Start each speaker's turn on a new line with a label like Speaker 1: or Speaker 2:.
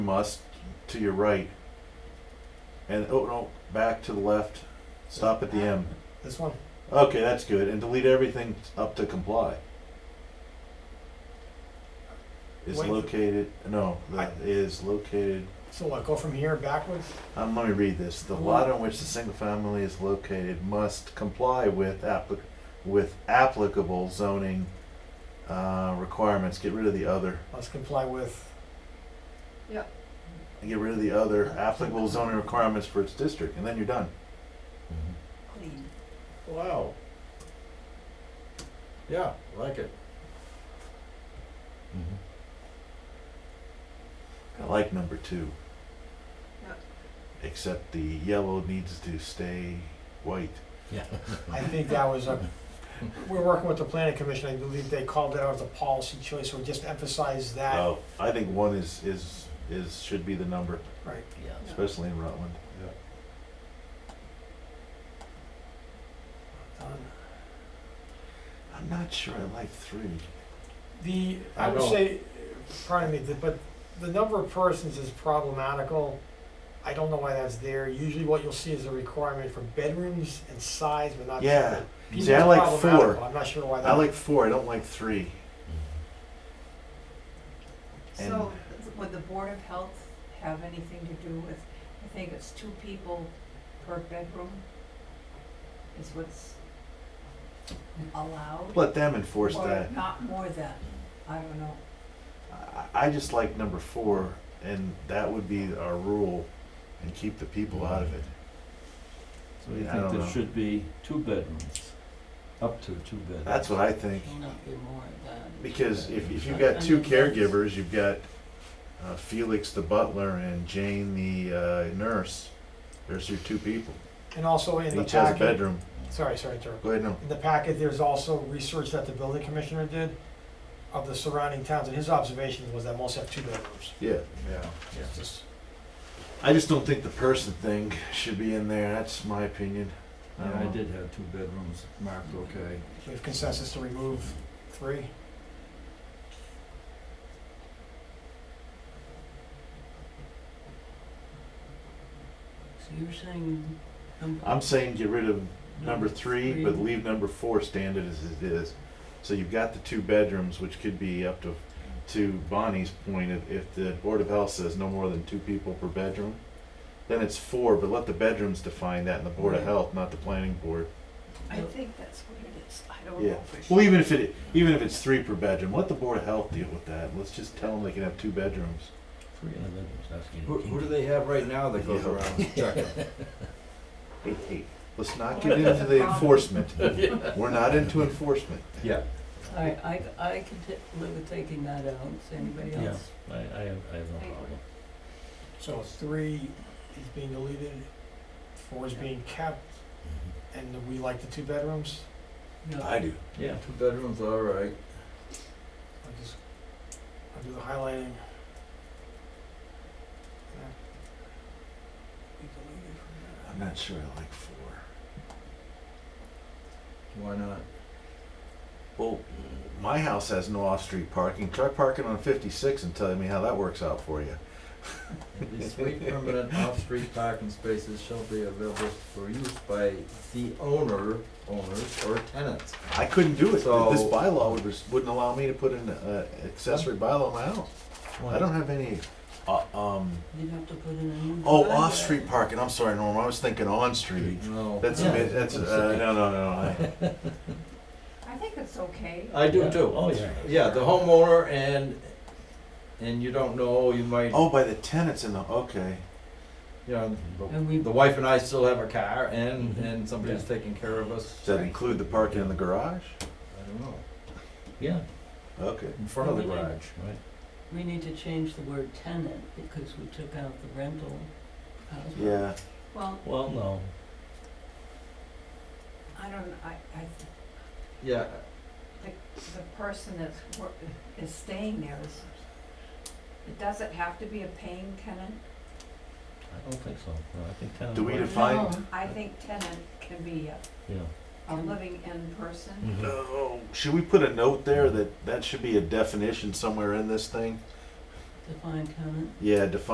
Speaker 1: must to your right and oh no back to the left stop at the m
Speaker 2: This one?
Speaker 1: okay that's good and delete everything up to comply is
Speaker 2: Wait.
Speaker 1: located no that is located
Speaker 2: So what, go from here backwards?
Speaker 1: um, let me read this the lot on which the single family is located must comply with applic- with applicable zoning uh, requirements get rid of the other
Speaker 2: Let's comply with,
Speaker 1: get rid of the other applicable zoning requirements for its district and then you're done
Speaker 3: clean.
Speaker 4: Wow. Yeah, like it.
Speaker 1: I like number two.
Speaker 3: Yep.
Speaker 1: Except the yellow needs to stay white.
Speaker 2: I think that was a, we're working with the planning commission, I believe they called it out as a policy choice, so just emphasize that.
Speaker 1: Oh, I think one is, is, is, should be the number,
Speaker 2: Right,
Speaker 4: Yeah.
Speaker 1: especially in Rutland.
Speaker 2: done.
Speaker 1: I'm not sure I like three.
Speaker 2: The, I
Speaker 4: I
Speaker 2: would
Speaker 4: don't-
Speaker 2: say, pardon me, the- but the number of persons is problematical. I don't know why that's there. Usually what you'll see is a requirement for bedrooms and size, but not.
Speaker 1: Yeah.
Speaker 2: People
Speaker 1: See, I
Speaker 2: is
Speaker 1: like four.
Speaker 2: problematical. I'm not sure why that.
Speaker 1: I like four, I don't like three.
Speaker 3: So would the Board of Health have anything to do with, I think it's two people per bedroom is what's allowed?
Speaker 1: Let them enforce
Speaker 3: Or
Speaker 1: that.
Speaker 3: not more than, I don't know.
Speaker 1: I, I just like number four, and that would be our rule, and keep the people out of it.
Speaker 5: So you think
Speaker 1: I don't
Speaker 5: there
Speaker 1: know.
Speaker 5: should be two bedrooms, up to two bedrooms?
Speaker 1: That's what I think.
Speaker 6: Shall not be more than.
Speaker 1: Because if, if you've got two caregivers, you've got uh, Felix the butler and Jane the uh, nurse. There's your two people.
Speaker 2: And also in
Speaker 1: And
Speaker 2: the
Speaker 1: each has a
Speaker 2: packet,
Speaker 1: bedroom.
Speaker 2: sorry, sorry, to interrupt.
Speaker 1: Go ahead, no.
Speaker 2: In the packet, there's also research that the building commissioner did of the surrounding towns, and his observation was that most have two bedrooms.
Speaker 1: Yeah.
Speaker 4: Yeah.
Speaker 2: It's just-
Speaker 1: I just don't think the person thing should be in there. That's my opinion. I
Speaker 5: Yeah,
Speaker 1: don't
Speaker 5: I
Speaker 1: know.
Speaker 5: did have two bedrooms marked okay.
Speaker 2: We have consensus to remove three.
Speaker 6: So you're saying. number-
Speaker 1: I'm saying get rid of number three, but
Speaker 6: Three.
Speaker 1: leave number four standard as it is. So you've got the two bedrooms, which could be up to, to Bonnie's point, if, if the Board of Health says no more than two people per bedroom, then it's four, but let the bedrooms define that in the Board of
Speaker 6: Right.
Speaker 1: Health, not the planning board.
Speaker 3: I think that's what it is, I don't
Speaker 1: Yeah.
Speaker 3: know for sure.
Speaker 1: Well, even if it, even if it's three per bedroom, let the Board of Health deal with that. Let's just tell them they can have two bedrooms.
Speaker 5: Three and a bedroom.
Speaker 4: Who, who do they have right now that goes
Speaker 1: Yeah.
Speaker 4: around checking?
Speaker 1: Hey, hey, let's not get into the enforcement. We're not into enforcement.
Speaker 4: Yeah.
Speaker 6: All right, I, I can t- live with taking that out, Does anybody
Speaker 5: Yeah.
Speaker 6: else?
Speaker 5: I, I have, I have
Speaker 3: no problem.
Speaker 2: So three is being deleted, four is being kept,
Speaker 4: Mm-hmm.
Speaker 2: and we like the two bedrooms.
Speaker 6: No.
Speaker 1: do.
Speaker 5: Yeah.
Speaker 4: Two bedrooms, all right.
Speaker 2: I'll just, I'll do the highlighting.
Speaker 1: I'm not sure I like four.
Speaker 4: Why not?
Speaker 1: Well, my house has no off-street parking. Try parking on 56 and tell me how that works out for you.
Speaker 4: At least three permanent off-street parking spaces shall be available for use by the owner, owners, or tenants.
Speaker 1: I couldn't do it.
Speaker 4: So-
Speaker 1: this bylaw would, res- wouldn't allow me to put an uh, accessory bylaw in my house. I don't have any. Uh, um,
Speaker 6: You'd have to put in a new.
Speaker 1: oh,
Speaker 6: driveway.
Speaker 1: off-street parking. I'm sorry, Norm. I was thinking on-street.
Speaker 4: No.
Speaker 1: That's
Speaker 5: Yeah.
Speaker 1: mi- that's uh, no no no. I,
Speaker 3: I think it's okay.
Speaker 4: I do too.
Speaker 5: Oh, yeah.
Speaker 4: Yeah, the homeowner and, and you don't know, you might,
Speaker 1: oh, by the tenants in the okay.
Speaker 4: you know,
Speaker 6: And we,
Speaker 4: the wife and I still have a car and, and somebody's taking care of us.
Speaker 1: Mm-hmm. Does that include the parking in the garage?
Speaker 4: I don't know.
Speaker 5: Yeah,
Speaker 1: Okay.
Speaker 4: In front of the
Speaker 6: Really?
Speaker 4: garage.
Speaker 5: right.
Speaker 6: we need to change the word tenant because we took out the rental. house.
Speaker 1: Yeah.
Speaker 3: Well,
Speaker 5: Well, no,
Speaker 3: I don't, I, I, th-
Speaker 4: Yeah,
Speaker 3: the person that's, wor- is staying there is, it doesn't have to be a paying tenant.
Speaker 5: I don't think so. No, I think ten.
Speaker 1: Do we
Speaker 5: works.
Speaker 1: define?
Speaker 6: No.
Speaker 3: I think tenant can be a,
Speaker 5: Yeah.
Speaker 3: a living in person.
Speaker 1: Mm-hmm. No. Should we put a note there that that should be a definition somewhere in this thing?
Speaker 6: Define tenant.
Speaker 1: Yeah, define.